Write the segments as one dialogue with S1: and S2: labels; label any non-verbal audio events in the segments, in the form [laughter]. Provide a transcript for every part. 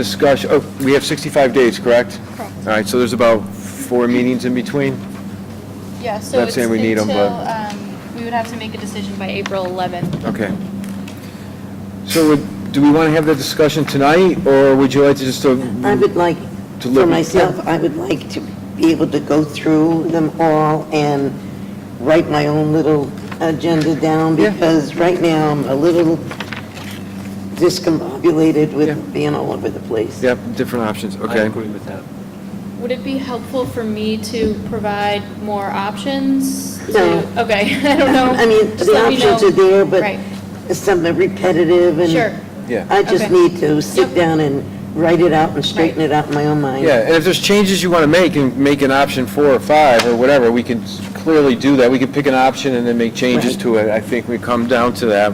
S1: Discussion, oh, we have 65 days, correct?
S2: Correct.
S1: All right, so there's about four meetings in between?
S2: Yeah, so
S1: Not
S2: it's
S1: saying
S2: until,
S1: we need 'em, but-
S2: um, we would have to make a decision by April 11th.
S1: Okay. So would- do we want to have that discussion tonight, or would you like to just, uh,
S3: I would like,
S1: To
S3: for
S1: look-
S3: myself, I would like to be able to go through them all and write my own little agenda down,
S1: Yeah.
S3: because right now I'm a little discombobulated
S1: Yeah.
S3: with being all over the place.
S1: yep, different options,
S4: I
S1: okay?
S4: agree with that.
S2: Would it be helpful for me to provide more options? to-
S3: No.
S2: Okay, [laughs] I don't know.
S3: I mean,
S2: Just
S3: the
S2: let me
S3: options
S2: know.
S3: are there,
S2: Right.
S3: but some are repetitive, and
S2: Sure.
S1: Yeah,
S3: I just
S2: Okay.
S3: need to sit
S2: Yep.
S3: down and write it out and straighten it out in my own mind.
S1: yeah, and if there's changes you want to make, and make an option four or five, or whatever, we can clearly do that. We can pick an option and then make changes
S3: Right.
S1: to it, I think we come down to that.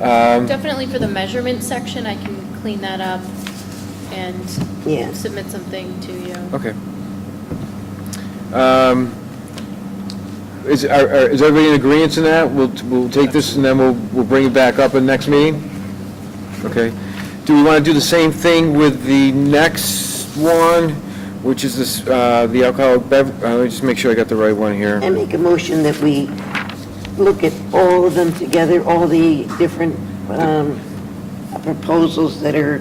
S1: Um,
S2: Definitely for the measurement section, I can clean that up and
S3: Yeah.
S2: submit something to you.
S1: Okay. Um, Is, are- are- is everybody in agreement in that? We'll, we'll take this and then we'll, we'll bring it back up in the next meeting? Okay. Do we want to do the same thing with the next one, which is this, uh, the alcoholic bev, uh, let me just make sure I got the right one here.
S3: And make a motion that we look at all of them together, all the different um, proposals that are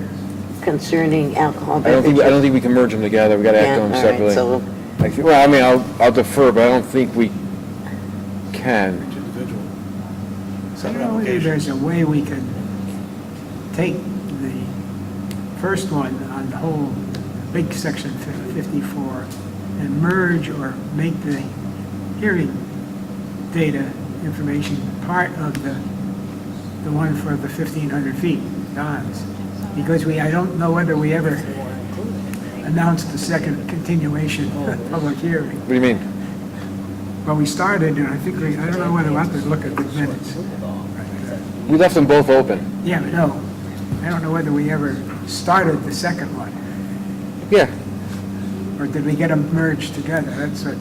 S3: concerning alcohol
S1: I don't think,
S3: beverages.
S1: I don't think we can merge them together. We got to act on them
S3: Yeah, all
S1: separately.
S3: right, so-
S1: I thi- Well, I mean, I'll, I'll defer, but I don't think we can.
S5: I don't know whether there's a way we could take the first one on the whole big section 54 and merge or make the hearing data information part of the, the one for the 1,500 feet, Don's. Because we, I don't know whether we ever announced the second continuation of public hearing.
S1: What do you mean?
S5: Well, we started, and I think we, I don't know whether we'll have to look at the minutes.
S1: We left them both open.
S5: Yeah, but no, I don't know whether we ever started the second one,
S1: Yeah.
S5: or did we get them merged together? That's what,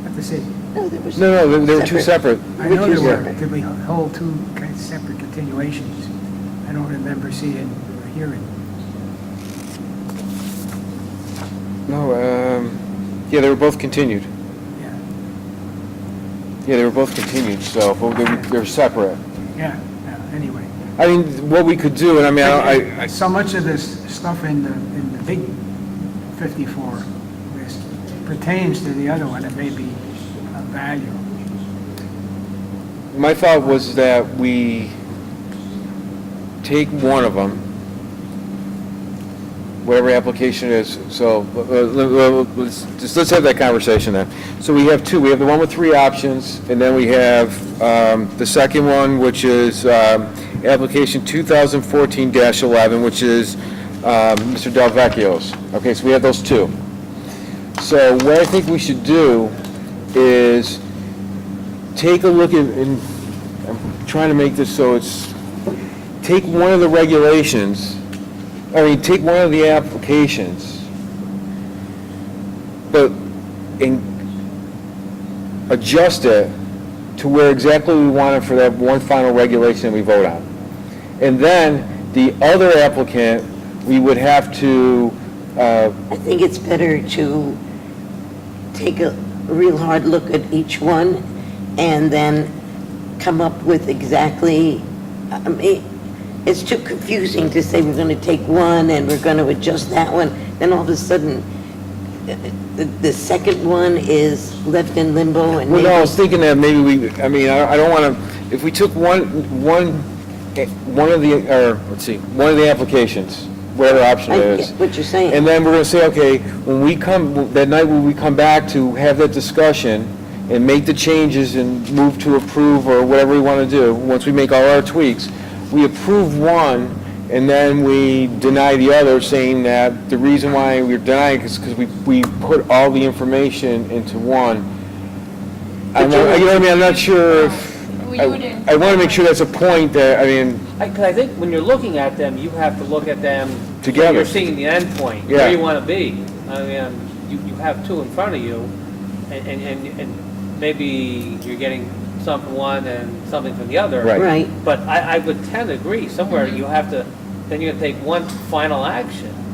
S5: I have to see.
S3: No, there was-
S1: No, no, they- they were two separate.
S5: I
S3: Which
S5: know there
S3: is
S5: were,
S3: separate.
S5: but did we hold two kind of separate continuations? I don't remember seeing or hearing.
S1: No, um, yeah, they were both continued.
S5: Yeah,
S1: Yeah, they were both continued, so, but they were, they were separate.
S5: yeah, yeah, anyway.
S1: I mean, what we could do, and I mean, I, I,
S5: So much of this stuff in the, in the big 54 list pertains to the other one, it may be of value.
S1: my thought was that we take one of them, whatever application it is, so, uh, uh, let's, just, let's have that conversation then. So we have two, we have the one with three options, and then we have, um, the second one, which is, um, application two thousand fourteen eleven, which is, um, Mr. Delvecchio's. Okay, so we have those two. So what I think we should do is take a look at, and I'm trying to make this so it's, take one of the regulations, I mean, take one of the applications, but, and adjust it to where exactly we want it for that one final regulation that we vote on. And then, the other applicant, we would have to, uh,
S3: I think it's better to take a real hard look at each one and then come up with exactly, I mean, it's too confusing to say we're going to take one and we're going to adjust that one, then all of a sudden, the, the second one is left in limbo and
S1: Well, no, I
S3: maybe
S1: was thinking that maybe we, I mean, I I don't want to, if we took one, one, eh, one of the, or, let's see, one of the applications, whatever option
S3: I
S1: it
S3: get
S1: is,
S3: what you're saying.
S1: and then we're going to say, okay, when we come, that night when we come back to have that discussion and make the changes and move to approve or whatever we want to do, once we make all our tweaks, we approve one and then we deny the other, saying that the reason why we're denying is because we, we put all the information into one. I'm
S3: But you're-
S1: not, you know what I mean, I'm not sure if,
S2: We
S1: I
S2: wouldn't-
S1: I want to make sure that's a point that, I mean,
S4: Because I think when you're looking at them, you have to look at them. when
S1: Together.
S4: You're seeing the end point,
S1: Yeah.
S4: where you want to be. I mean, um, you, you have two in front of you, and, and- and, and maybe you're getting some from one and something from the other.
S1: Right.
S3: Right.
S4: But I, I would tend to agree, somewhere you have to then you're gonna take one final action.